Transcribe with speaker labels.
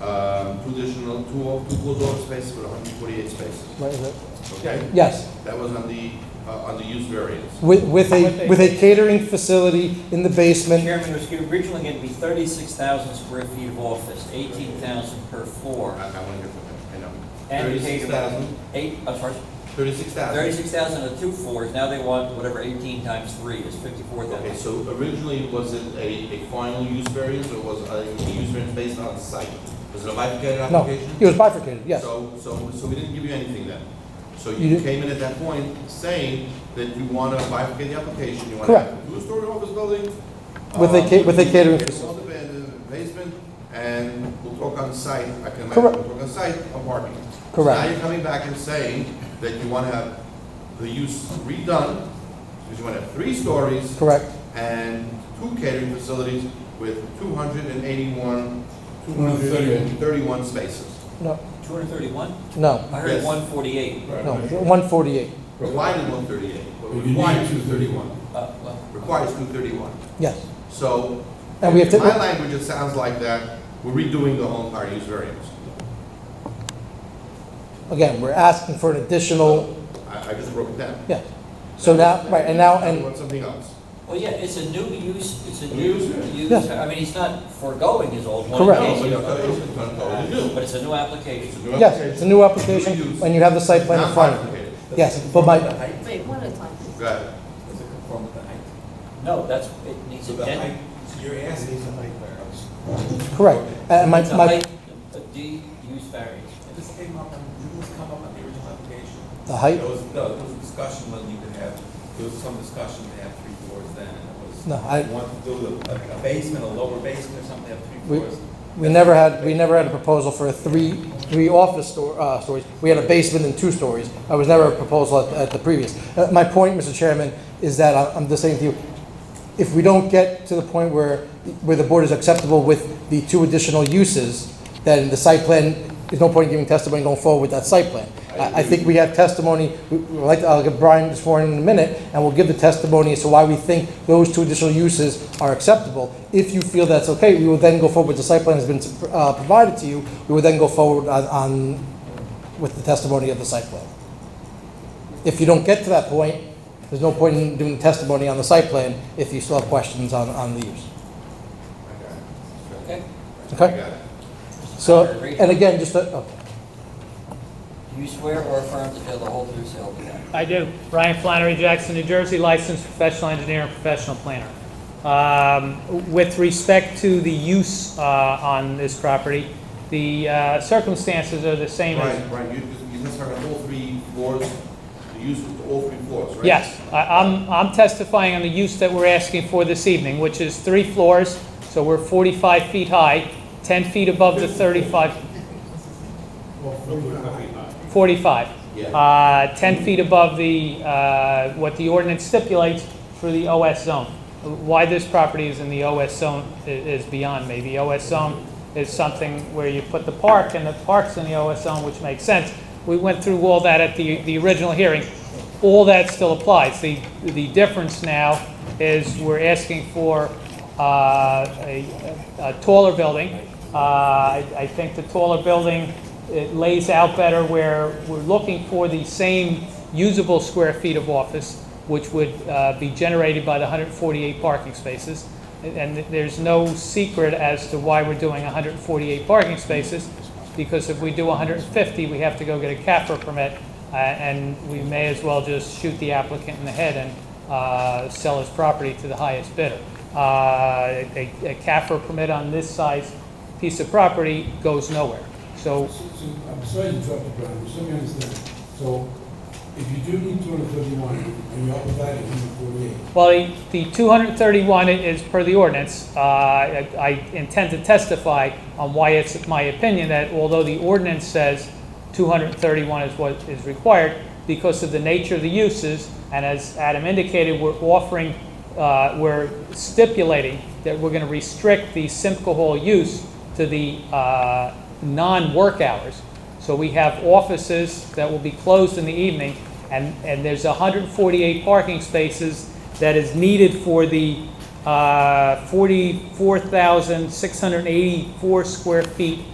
Speaker 1: Um, additional, two, off- two closed off spaces with 148 spaces,
Speaker 2: Where is it?
Speaker 1: okay?
Speaker 2: Yes,
Speaker 1: That was on the, uh, on the use variance.
Speaker 2: with, with
Speaker 3: With
Speaker 2: a,
Speaker 3: a-
Speaker 2: with a catering facility in the basement.
Speaker 4: Chairman, it was originally going to be 36,000 square feet of office, 18,000 per floor.
Speaker 1: I, I want to get to that, I know.
Speaker 4: And catering.
Speaker 1: 36,000,
Speaker 4: Eight, I'm sorry,
Speaker 1: 36,000.
Speaker 4: 36,000 of two floors, now they want whatever 18 times three is
Speaker 1: Okay,
Speaker 4: 54,000.
Speaker 1: so originally, was it a, a final use variance, or was it a use variance based on site? Was it a bifurcated
Speaker 2: No,
Speaker 1: application?
Speaker 2: it was bifurcated, yes.
Speaker 1: So, so, so we didn't give you anything then? So
Speaker 2: You
Speaker 1: you
Speaker 2: did-
Speaker 1: came in at that point saying that you want to bifurcate the application, you want
Speaker 2: Correct.
Speaker 1: to two-story office building.
Speaker 2: With a
Speaker 1: uh,
Speaker 2: ca- with a catering
Speaker 1: small ba- Basement, and we'll talk on site, I can imagine,
Speaker 2: Correct.
Speaker 1: we'll talk on site of parking. So
Speaker 2: Correct.
Speaker 1: Now you're coming back and saying that you want to have the use redone, because you want to have three stories
Speaker 2: Correct,
Speaker 1: and two catering facilities with two hundred and eighty-one, two hundred and thirty-one spaces.
Speaker 2: no,
Speaker 4: 231?
Speaker 2: no,
Speaker 4: I heard
Speaker 1: Yes.
Speaker 4: 148.
Speaker 2: no, 148,
Speaker 1: Required one thirty-eight, but
Speaker 5: You need
Speaker 1: required,
Speaker 5: two thirty-one.
Speaker 4: Uh, well,
Speaker 1: requires two thirty-one.
Speaker 2: yes.
Speaker 1: So,
Speaker 2: And we have
Speaker 1: in my
Speaker 2: to,
Speaker 1: language, it sounds like that we're redoing the whole entire use variance.
Speaker 2: again, we're asking for an additional,
Speaker 1: I, I just broke it down.
Speaker 2: yes. So now, right, and now, and
Speaker 1: I want something else.
Speaker 4: well, yeah, it's a new use, it's a
Speaker 1: New
Speaker 4: new
Speaker 1: use, yeah.
Speaker 4: use,
Speaker 2: Yeah.
Speaker 4: I mean, he's not foregoing his old one.
Speaker 2: Correct.
Speaker 1: No,
Speaker 4: Okay,
Speaker 1: but it's not- it's not totally new.
Speaker 4: But it's a new
Speaker 1: It's a
Speaker 4: application.
Speaker 1: new
Speaker 2: Yes, it's a new application, and you have the site plan in
Speaker 1: Not
Speaker 2: front of you.
Speaker 1: complicated.
Speaker 2: Yes, but my,
Speaker 6: Wait, one at a time, please.
Speaker 1: Go ahead.
Speaker 7: Does it conform with the height?
Speaker 4: No, that's, it needs
Speaker 7: So
Speaker 4: a
Speaker 7: the height,
Speaker 4: den.
Speaker 7: so you're asking.
Speaker 2: correct, and my,
Speaker 4: It's a
Speaker 2: my,
Speaker 4: height, a D use variance.
Speaker 7: This came up, on- didn't this come up on the original application?
Speaker 2: the height,
Speaker 7: There was, no, there was a discussion when you could have, there was some discussion to have three floors then, and it was.
Speaker 2: No, I-
Speaker 7: you Want to do a a basement, a lower basement or something, have
Speaker 2: We-
Speaker 7: three floors.
Speaker 2: we never had, we never had a proposal for a three, three office sto- uh, stories. We had a basement and two stories. I was never a proposal at, at the previous. Uh, my point, Mr. Chairman, is that I- I'm just saying to you, if we don't get to the point where, where the board is acceptable with the two additional uses, then the site plan, there's no point in giving testimony going forward with that site plan. I, I think we have testimony, we, we'd like, to- I'll get Brian this morning in a minute, and we'll give the testimony as to why we think those two additional uses are acceptable. If you feel that's okay, we will then go forward, with the site plan has been, uh, provided to you, we will then go forward on, on, with the testimony of the site plan. If you don't get to that point, there's no point in doing testimony on the site plan if you still have questions on, on the use.
Speaker 4: Okay?
Speaker 1: I got
Speaker 2: Okay?
Speaker 1: it.
Speaker 2: So, and again, just, a- okay.
Speaker 4: Do you swear or affirm to tell the whole truth, so help you God?
Speaker 3: I do. Brian Flannery Jackson, New Jersey, licensed professional engineer and professional planner. Um, With respect to the use uh, on this property, the uh, circumstances are the same as...
Speaker 1: Right, right, you, you just have all three floors, the use of all three floors, right?
Speaker 3: Yes, I- I'm I'm testifying on the use that we're asking for this evening, which is three floors, so we're 45 feet high, 10 feet above the 35... 45.
Speaker 1: Yeah.
Speaker 3: Uh, 10 feet above the, uh, what the ordinance stipulates for the OS zone. Why this property is in the OS zone i- is beyond me. The OS zone is something where you put the park, and the park's in the OS zone, which makes sense. We went through all that at the, the original hearing. All that still applies. The, the difference now is we're asking for uh, a a taller building. Uh, I I think the taller building, it lays out better where we're looking for the same usable square feet of office, which would uh, be generated by the 148 parking spaces. And and there's no secret as to why we're doing 148 parking spaces, because if we do 150, we have to go get a CAFR permit, uh, and we may as well just shoot the applicant in the head and uh, sell his property to the highest bidder. Uh, A a CAFR permit on this size piece of property goes nowhere. So
Speaker 5: So, so, I'm sorry to interrupt you, Brian, but let me understand. So, if you do need two hundred thirty-one, and you're providing hundred forty-eight,
Speaker 3: Well, the- the 231 is per the ordinance. Uh, I I intend to testify on why it's my opinion that although the ordinance says 231 is what is required, because of the nature of the uses, and as Adam indicated, we're offering, uh, we're stipulating that we're going to restrict the Simco Hall use to the uh, non-work hours. So we have offices that will be closed in the evening, and, and there's 148 parking spaces that is needed for the uh, 44,684 square feet